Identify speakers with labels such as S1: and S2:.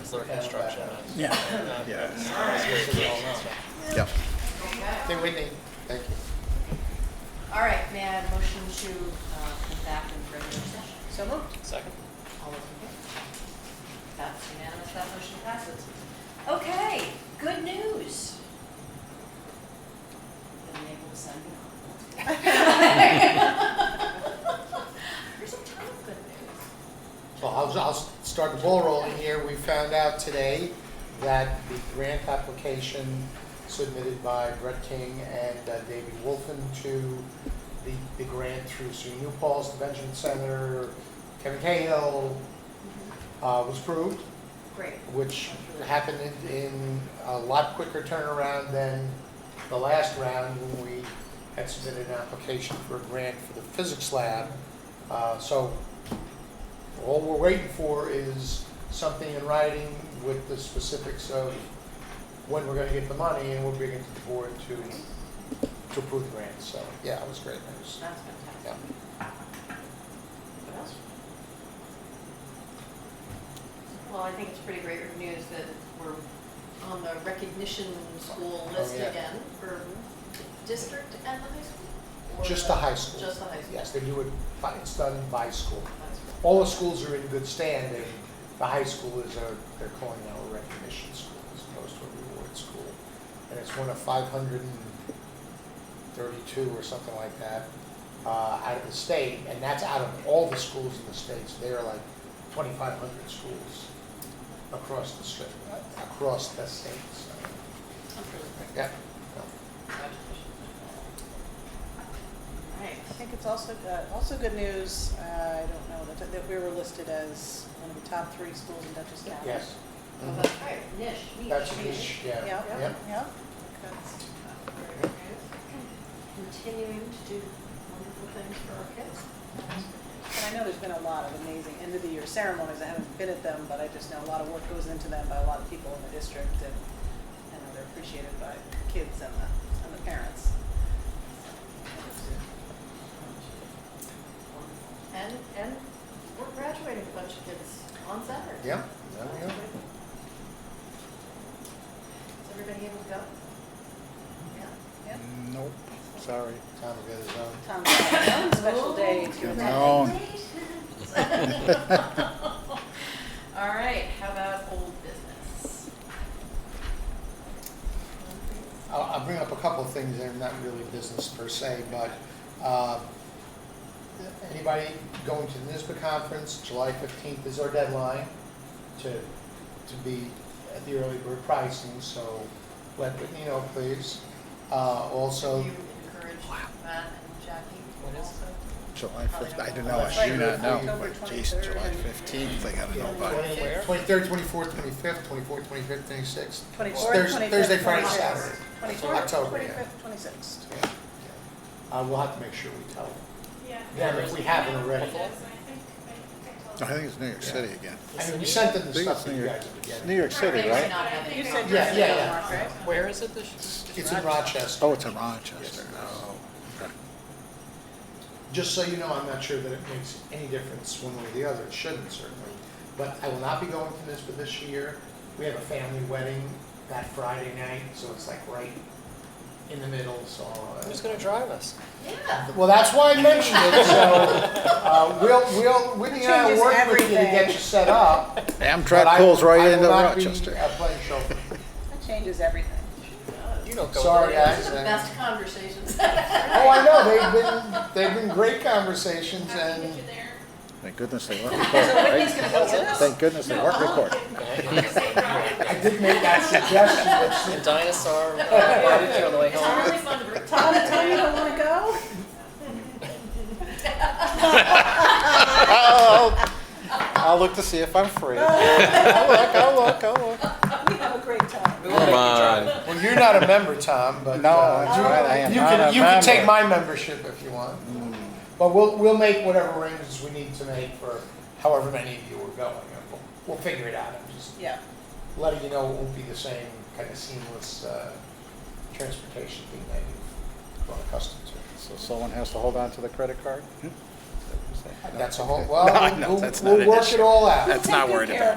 S1: It's their construction.
S2: Yeah.
S3: Yeah.
S4: Yeah.
S1: Hey, Whitney.
S4: Thank you.
S5: All right, may I have a motion to uh, come back in regular session? So moved.
S1: Second.
S5: All those in favor? That's unanimous, that motion passes. Okay, good news. The naval sending off. There's a ton of good news.
S4: Well, I'll, I'll start the ball rolling here. We found out today that the grant application submitted by Brett King and uh, David Wolfen to the, the grant through SU New Paul's, the Benjamin Center, Kevin Cahill, uh, was approved.
S5: Great.
S4: which happened in- in a lot quicker turnaround than the last round when we had submitted an application for a grant for the physics lab. Uh, So all we're waiting for is something in writing with the specifics of when we're gonna get the money, and we'll bring it to the board to, to approve the grant. So, yeah, it was great news.
S5: That's fantastic.
S4: Yeah.
S5: What else? Well, I think it's pretty great news that we're on the recognition school
S4: Oh,
S5: list
S4: yeah.
S5: again for the district and the high school? or
S4: Just the high school.
S5: Just the high school?
S4: Yes, Oh. they do it, by- it's done by school.
S5: That's great.
S4: all the schools are in good standing. The high school is a, they're calling now a recognition school as opposed to a reward school. And it's one of five hundred and thirty-two or something like that, uh, out of the state. And that's out of all the schools in the states. They are like twenty-five hundred schools across the state, across the state, so,
S5: That's really great.
S4: yeah.
S5: Congratulations.
S6: I
S5: Right.
S6: think it's also, uh, also good news, uh, I don't know, that, that we were listed as one of the top three schools in Dutchess County.
S4: Yes.
S5: Well, that's right, niche, niche.
S4: That's a niche, yeah,
S6: Yeah,
S4: yeah.
S6: yeah, yeah. Okay.
S5: Very good. Continuing to do wonderful things for our kids.
S6: And I know there's been a lot of amazing end of the year ceremonies. I haven't been at them, but I just know a lot of work goes into them by a lot of people in the district and I know they're appreciated by the kids and the, and the parents.
S5: And, and we're graduating a bunch of kids on Saturday.
S4: Yeah,
S5: So
S4: there we
S5: that's
S4: go.
S5: great. Is everybody able to go? Yeah.
S3: Nope, sorry.
S4: Time to go to the zone.
S6: Tom's got his own special day.
S3: Yeah. No.
S5: All right, how about old business?
S4: I'll, I'll bring up a couple of things that are not really business per se, but, uh, anybody going to the NISBA conference, July fifteenth is our deadline to, to be at the early bird pricing, so let Whitney know, please. Uh, also,
S5: You encourage Matt and Jackie also?
S3: July fifth, I don't know, I do not know, but Jason, July fifteenth, I gotta know by.
S4: twenty-third, twenty-fourth, twenty-fifth, twenty-fourth, twenty-fifth, twenty-sixth.
S6: Twenty-fourth,
S4: Thursday- Thursday,
S6: twenty-fifth,
S4: Friday,
S6: twenty-sixth.
S4: Saturday.
S6: Twenty-fourth,
S4: October, yeah.
S6: twenty-fifth, twenty-sixth.
S4: Yeah, yeah. Uh, we'll have to make sure we tell them.
S7: Yeah.
S4: Them if we haven't
S7: I
S4: already.
S7: think I-
S3: I
S7: I told
S3: think it's New York City again.
S4: I mean, we sent them the
S3: Think
S4: stuff
S3: it's
S4: that
S3: New
S4: you
S3: York,
S4: guys have been
S3: it's
S4: getting.
S3: New York City, right?
S5: Not having
S7: You
S5: a
S7: said
S6: you're
S4: Yeah, yeah, yeah.
S6: Mark, right?
S1: Where is it this?
S4: It's in Rochester.
S3: Oh, it's in Rochester, oh, okay.
S4: Just so you know, I'm not sure that it makes any difference one way or the other, it shouldn't certainly. But I will not be going to NISBA this year. We have a family wedding that Friday night, so it's like right in the middle, so. uh,
S1: Who's gonna drive us?
S5: Yeah.
S4: Well, that's why I mentioned it, so, uh, we'll, we'll, Whitney and I will work
S6: Changes
S4: with you to get
S6: everything.
S4: you set up. but
S3: Amtrak
S4: I-
S3: pulls
S4: I
S3: right
S4: will
S3: into
S4: not be,
S3: Rochester.
S4: uh, playing chauffeur.
S6: That changes everything.
S1: You don't go.
S4: Sorry,
S1: there.
S4: guys.
S5: Those are the
S4: uh,
S5: best conversations.
S4: Oh, I know, they've been, they've been great conversations
S7: How do you
S4: and
S7: get you there?
S3: Thank goodness they weren't recorded, right? Thank goodness they weren't recorded.
S4: I did make that suggestion, which
S1: And dinosaur, uh, barbecue on the way home.
S5: It's really fun to bring.
S6: Tom, Tom, you don't wanna go?
S3: I'll I'll look to see if I'm free. I'll look, I'll look, I'll look.
S6: We have a great time.
S1: We won't make you drive.
S4: Well, you're not a member, Tom, but.
S3: No,
S4: uh,
S3: that's
S4: you-
S3: right, I am
S4: You
S3: not
S4: can,
S3: a
S4: you can take
S3: member.
S4: my membership if you want.
S3: Hmm,
S4: But we'll, we'll make whatever arrangements we need to make for however many of you are going. and We'll, we'll figure it out. I'm just
S6: Yeah.
S4: letting you know it won't be the same kind of seamless, uh, transportation thing that you've grown accustomed to.
S3: So someone has to hold on to the credit card? Hmm?
S4: That's a whole,
S3: No, I know,
S4: well,
S3: that's
S4: we'll,
S3: not
S4: we'll
S3: an
S4: work
S3: issue.
S4: it all out.
S3: That's not worried about.